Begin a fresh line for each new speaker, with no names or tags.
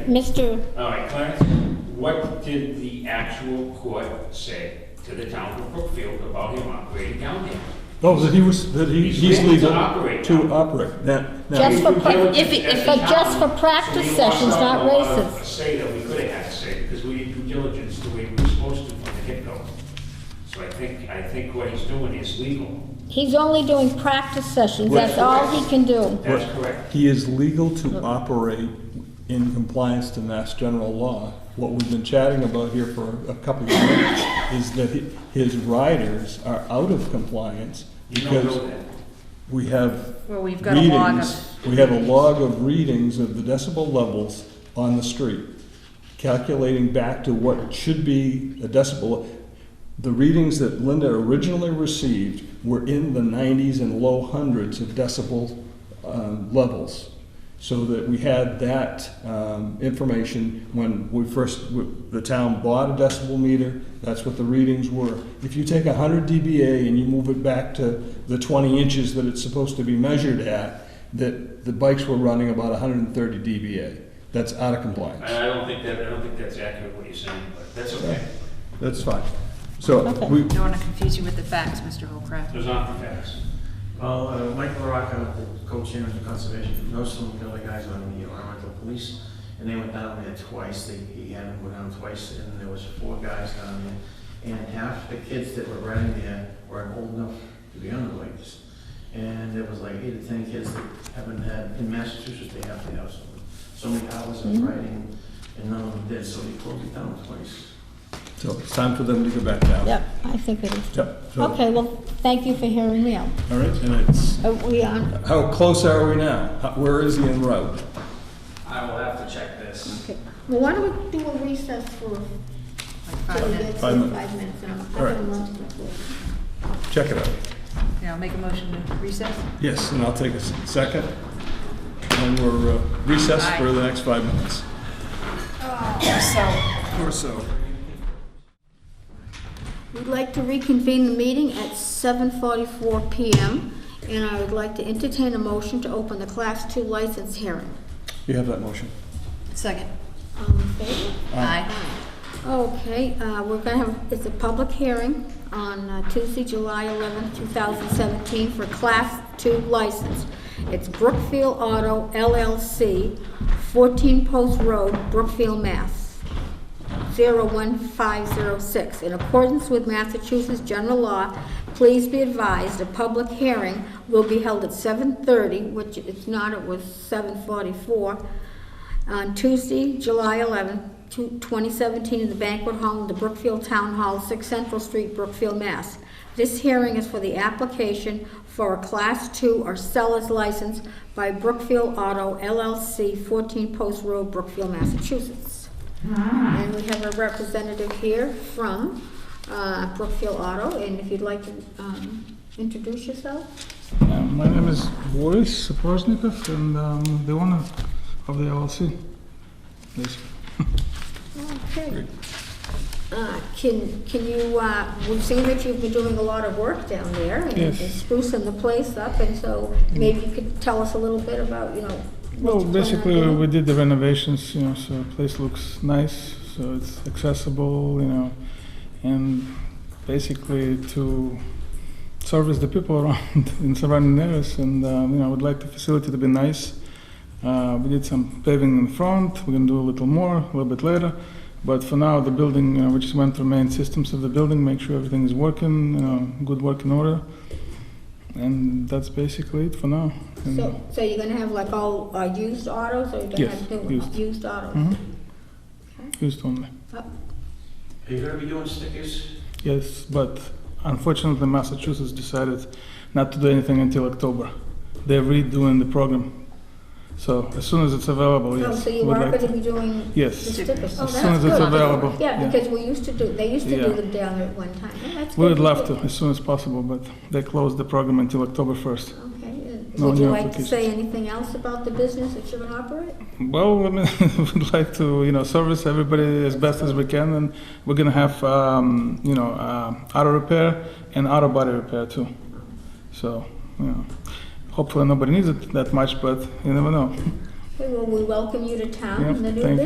Okay.
Mr.
All right, Clarence, what did the actual court say to the town of Brookfield about him operating down there?
Oh, that he was, that he,
He's
he's
legal to
legal
operate.
to operate. Now, now,
Just- for pra-
Due diligence
if it-
as
if
the
it-
town,
just for practice
so we lost
sessions,
out
not
on a lot of
races.
Say that we could have had to say, because we didn't do diligence the way we were supposed to from the get-go. So I think, I think what he's doing is legal.
He's only doing practice sessions, that's all he can do.
That's correct.
he is legal to operate in compliance to Mass General Law. What we've been chatting about here for a couple of minutes is that he- his riders are out of compliance
You don't
because
know that.
we have
Well, we've got a log of-
readings- We have a log of readings of the decibel levels on the street, calculating back to what should be a decibel. The readings that Linda originally received were in the nineties and low hundreds of decibel um, levels. So that we had that um, information when we first, w- the town bought a decibel meter, that's what the readings were. If you take 100 dBA and you move it back to the 20 inches that it's supposed to be measured at, that the bikes were running about 130 dBA. That's out of compliance.
I I don't think that, I don't think that's accurate what you're saying, but that's okay.
That's fine. So
Okay.
we,
Don't want to confuse you with the facts, Mr. Holcraft.
Those aren't the facts.
Well, uh, Mike LaRocca, the co-chairman of the conservation, knows some of the other guys on the environmental police, and they went down there twice, they, he had them go down twice, and there was four guys down there, and half the kids that were riding there weren't old enough to be on the bikes. And there was like eight or ten kids that haven't had, in Massachusetts, they have to have so, so many hours of riding, and none of them did, so he closed it down twice.
so it's time for them to go back down.
Yep, I think it is.
Yep, so-
Okay, well, thank you for hearing me out.
All right, and it's,
Are Uh, we on?
how close are we now? How- Where is he en route?
I will have to check this.
Okay. Well, why don't we do a recess for
Like
till
five
we
minutes.
get to
Five minutes.
five minutes? and I'll- I've
All right.
got lunch before.
Check it out.
Yeah, I'll make a motion to recess.
Yes, and I'll take a s- second. And we're uh, recessed for the next five minutes. Or so.
We'd like to reconvene the meeting at 7:44 PM, and I would like to entertain a motion to open the Class II license hearing.
You have that motion.
Second.
All in favor?
Aye.
Okay, uh, we're gonna have, it's a public hearing on uh, Tuesday, July 11th, 2017, for Class 2 license. It's Brookfield Auto LLC, 14 Post Road, Brookfield, Mass. 01506. In accordance with Massachusetts general law, please be advised, a public hearing will be held at 7:30, which it's not, it was 7:44, on Tuesday, July 11, 2017, in the banquet hall in the Brookfield Town Hall, 6 Central Street, Brookfield, Mass. This hearing is for the application for a Class II or seller's license by Brookfield Auto LLC, 14 Post Road, Brookfield, Massachusetts. And we have a representative here from uh, Brookfield Auto, and if you'd like to um, introduce yourself?
Uh, My name is Boris Saprosnikov and I'm the owner of the LLC. Yes.
Okay. Uh, Can, can you, uh, we've seen that you've been doing a lot of work down there and
Yes. Mm.
and sprucing the place up, and so maybe you could tell us a little bit about, you know. what
Well,
you plan on
basically,
doing.
we did the renovations, you know, so the place looks nice, so it's accessible, you know, and basically to service the people around in surrounding areas. And, um, you know, I would like the facility to be nice. Uh, we did some paving in front, we're going to do a little more a little bit later. But for now, the building, uh, we just went through main systems of the building, make sure everything is working, you know, good working order. And that's basically it for now. And-
So, so you're gonna have like all uh, used autos, or you're gonna
Yes,
have new ones?
used.
Used autos?
Mhm. Used only.
Uh,
Are you gonna be doing stickers?
Yes, but unfortunately, Massachusetts decided not to do anything until October. They're redoing the program. So as soon as it's available,
Oh,
yes.
so you
we'd
are
like
gonna
to-
be doing the
Yes.
stickers? Oh,
As soon
that's
as it's
good.
available,
Yeah,
yeah.
because we used to do, they used to do
Yeah.
them down there at one time. Oh, that's
We
good.
would love to, as soon as possible, but they closed the program until October 1st.
Okay, and
No
would you
new
like to say
applications.
anything else about the business that you're gonna operate?
Well, I mean, we'd like to, you know, service everybody as best as we can, and we're gonna have, um, you know, uh, auto repair and auto body repair too. So, you know, hopefully nobody needs it that much, but you never know.
Okay, well, we welcome you to town
Yeah,
and the new
thank you.